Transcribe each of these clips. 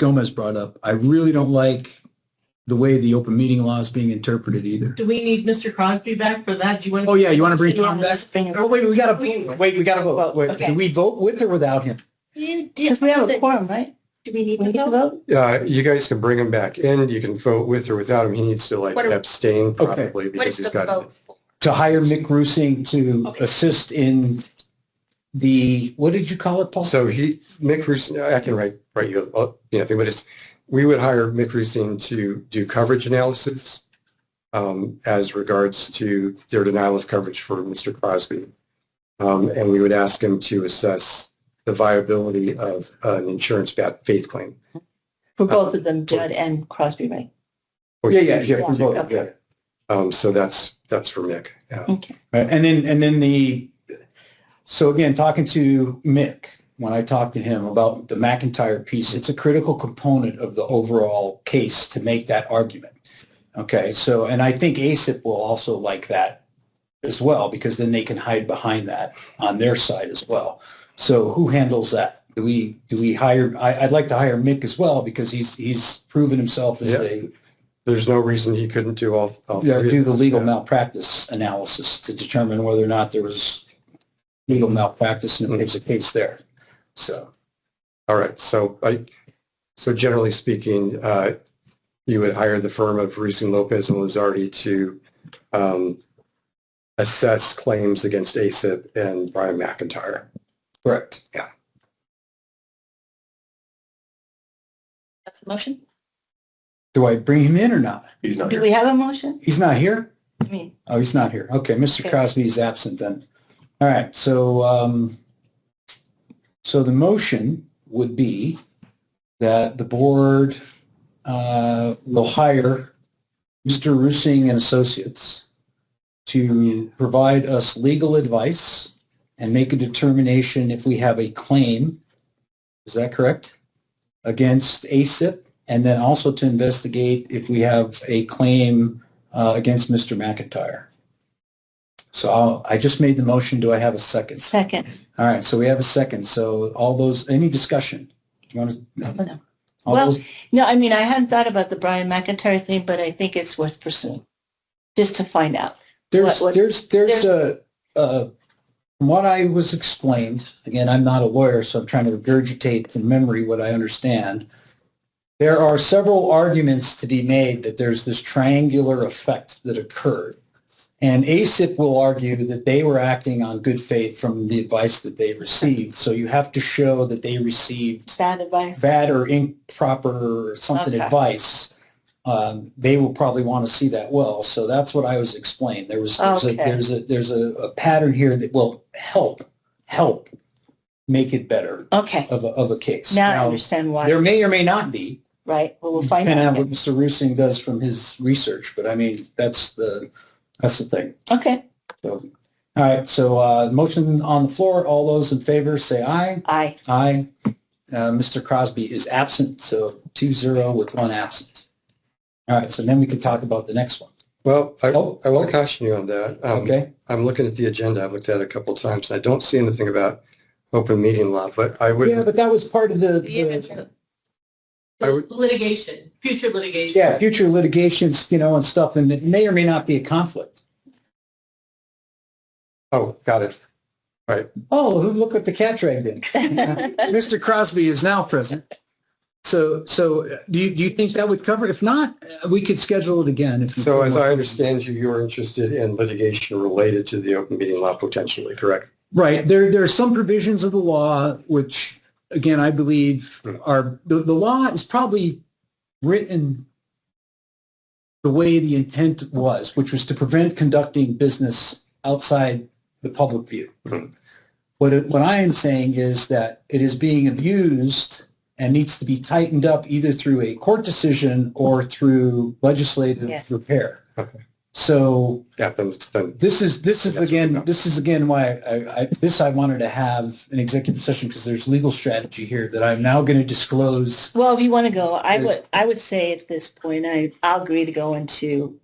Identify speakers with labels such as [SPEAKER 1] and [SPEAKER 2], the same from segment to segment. [SPEAKER 1] Gomez brought up. I really don't like the way the open meeting law is being interpreted either.
[SPEAKER 2] Do we need Mr. Crosby back for that? Do you want?
[SPEAKER 1] Oh, yeah, you want to bring Tom back? Oh,
[SPEAKER 2] back?
[SPEAKER 1] wait, we gotta, vote. wait, we gotta vote. Wait,
[SPEAKER 2] Okay.
[SPEAKER 1] Do we vote with or without him?
[SPEAKER 2] You
[SPEAKER 3] Because
[SPEAKER 2] did,
[SPEAKER 3] we have a
[SPEAKER 2] do
[SPEAKER 3] quorum, right?
[SPEAKER 2] we need
[SPEAKER 3] We
[SPEAKER 2] to
[SPEAKER 3] need to
[SPEAKER 2] vote?
[SPEAKER 3] vote?
[SPEAKER 4] Uh, you guys can bring him back in. You can vote with or without him. He needs to like
[SPEAKER 2] What are-
[SPEAKER 4] abstain
[SPEAKER 1] Okay.
[SPEAKER 4] probably because he's got.
[SPEAKER 1] To hire Mick Rusing to
[SPEAKER 2] Okay.
[SPEAKER 1] assist in the, what did you call it, Paul?
[SPEAKER 4] So he, Mick Rusin, I can write, write you, uh, you know, thing, but it's, we would hire Mick Rusin to do coverage analysis um, as regards to their denial of coverage for Mr. Crosby. Um, and we would ask him to assess the viability of an insurance bad faith claim.
[SPEAKER 3] For both of them, Judd and Crosby, right?
[SPEAKER 1] Yeah, yeah, yeah,
[SPEAKER 3] we vote, yeah.
[SPEAKER 4] Um, so that's, that's for Mick. Yeah.
[SPEAKER 3] Okay.
[SPEAKER 1] Right, And then, and then the, so again, talking to Mick, when I talked to him about the McIntyre piece, it's a critical component of the overall case to make that argument. Okay, so, and I think ASIP will also like that as well, because then they can hide behind that on their side as well. So who handles that? Do we, do we hire, I, I'd like to hire Mick as well, because he's, he's proven himself as
[SPEAKER 4] Yeah.
[SPEAKER 1] a,
[SPEAKER 4] There's no reason he couldn't do all. all
[SPEAKER 1] yeah,
[SPEAKER 4] three of
[SPEAKER 1] Oh, do the
[SPEAKER 4] them.
[SPEAKER 1] legal
[SPEAKER 4] Yeah.
[SPEAKER 1] malpractice analysis to determine whether or not there was legal malpractice
[SPEAKER 4] Mm-hmm.
[SPEAKER 1] and if there's a case there. So,
[SPEAKER 4] All right, so I, so generally speaking, uh, you would hire the firm of Reese and Lopez and Lazardi to um, assess claims against ASIP and Brian McIntyre.
[SPEAKER 1] correct.
[SPEAKER 3] That's a motion?
[SPEAKER 1] Do I bring him in or not?
[SPEAKER 4] He's not
[SPEAKER 3] Do we have a motion?
[SPEAKER 1] He's not here?
[SPEAKER 3] I mean,
[SPEAKER 1] Oh, he's not here. Okay, Mr.
[SPEAKER 3] Okay.
[SPEAKER 1] Crosby is absent then. All right, so, um, so the motion would be that the board, uh, will hire Mr. Rusing and Associates to provide us legal advice and make a determination if we have a claim, is that correct? Against ASIP, and then also to investigate if we have a claim, uh, against Mr. McIntyre. So I'll, I just made the motion. Do I have a second?
[SPEAKER 3] second.
[SPEAKER 1] All right, so we have a second. So all those, any discussion? Do you want to?
[SPEAKER 3] No.
[SPEAKER 1] All
[SPEAKER 3] Well-
[SPEAKER 1] those,
[SPEAKER 3] No, I mean, I hadn't thought about the Brian McIntyre thing, but I think it's worth pursuing, just to find out.
[SPEAKER 1] there's,
[SPEAKER 3] what- what-
[SPEAKER 1] there's, there's a, a, from what I was explained, again, I'm not a lawyer, so I'm trying to regurgitate from memory what I understand. There are several arguments to be made that there's this triangular effect that occurred. And ASIP will argue that they were acting on good faith from the advice that they received. So you have to show that they received
[SPEAKER 3] Bad advice.
[SPEAKER 1] bad or improper or something
[SPEAKER 3] Okay.
[SPEAKER 1] advice, um, they will probably want to see that well. So that's what I was explained. There was there's, a,
[SPEAKER 3] Okay.
[SPEAKER 1] there's a there's a, a pattern here that will help help make it better
[SPEAKER 3] Okay,
[SPEAKER 1] of a, of a case.
[SPEAKER 3] now I understand why,
[SPEAKER 1] there may or may not be,
[SPEAKER 3] right? Well, we'll find
[SPEAKER 1] depending on what
[SPEAKER 3] out.
[SPEAKER 1] Mr. Rusing does from his research. But I mean, that's the that's the thing.
[SPEAKER 3] Okay,
[SPEAKER 1] So, all right. So uh, motion on the floor. All those in favor, say aye.
[SPEAKER 3] aye.
[SPEAKER 1] Aye. Uh, Mr. Crosby is absent, so two zero with one absent. All right, so then we can talk about the next one.
[SPEAKER 4] Well, I,
[SPEAKER 1] Oh.
[SPEAKER 4] I want to caution you on that. Um,
[SPEAKER 1] Okay,
[SPEAKER 4] I'm looking at the agenda. I've looked at it a couple of times and I don't see anything about open meeting law, but I
[SPEAKER 1] yeah,
[SPEAKER 4] would,
[SPEAKER 1] but that was part of the, the-
[SPEAKER 2] The
[SPEAKER 4] I would-
[SPEAKER 2] Litigation, future litigation.
[SPEAKER 1] yeah, future litigations, you know, and stuff, and it may or may not be a conflict.
[SPEAKER 4] oh, got it.
[SPEAKER 1] Oh, look what the cat dragged in. Mr. Crosby is now present. So, so uh, do you, do you think that would cover? If not, uh, we could schedule it again. if you-
[SPEAKER 4] So as I understand you, you're interested in litigation related to the open meeting law potentially, correct?
[SPEAKER 1] Right. There, there are some provisions of the law which, again, I believe are, the, the law is probably written the way the intent was, which was to prevent conducting business outside the public view.
[SPEAKER 4] Mhm.
[SPEAKER 1] What, it- what I am saying is that it is being abused and needs to be tightened up either through a court decision or through
[SPEAKER 3] Yeah.
[SPEAKER 1] legislative repair. So
[SPEAKER 4] Yeah, then, then
[SPEAKER 1] this is, this is
[SPEAKER 4] That's
[SPEAKER 1] again,
[SPEAKER 4] enough.
[SPEAKER 1] this is again why I, I, this I wanted to have an executive session because there's legal strategy here that I'm now going to disclose.
[SPEAKER 3] Well, if you want to go, I
[SPEAKER 1] Yeah.
[SPEAKER 3] would, I would say at this point, I, I'll agree to go into,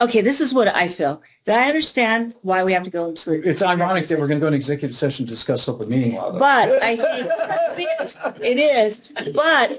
[SPEAKER 3] okay, this is what I feel. I understand why we have to go into.
[SPEAKER 1] It's ironic that we're going to go into executive session to discuss open meeting law. though.
[SPEAKER 3] But I think, it is, but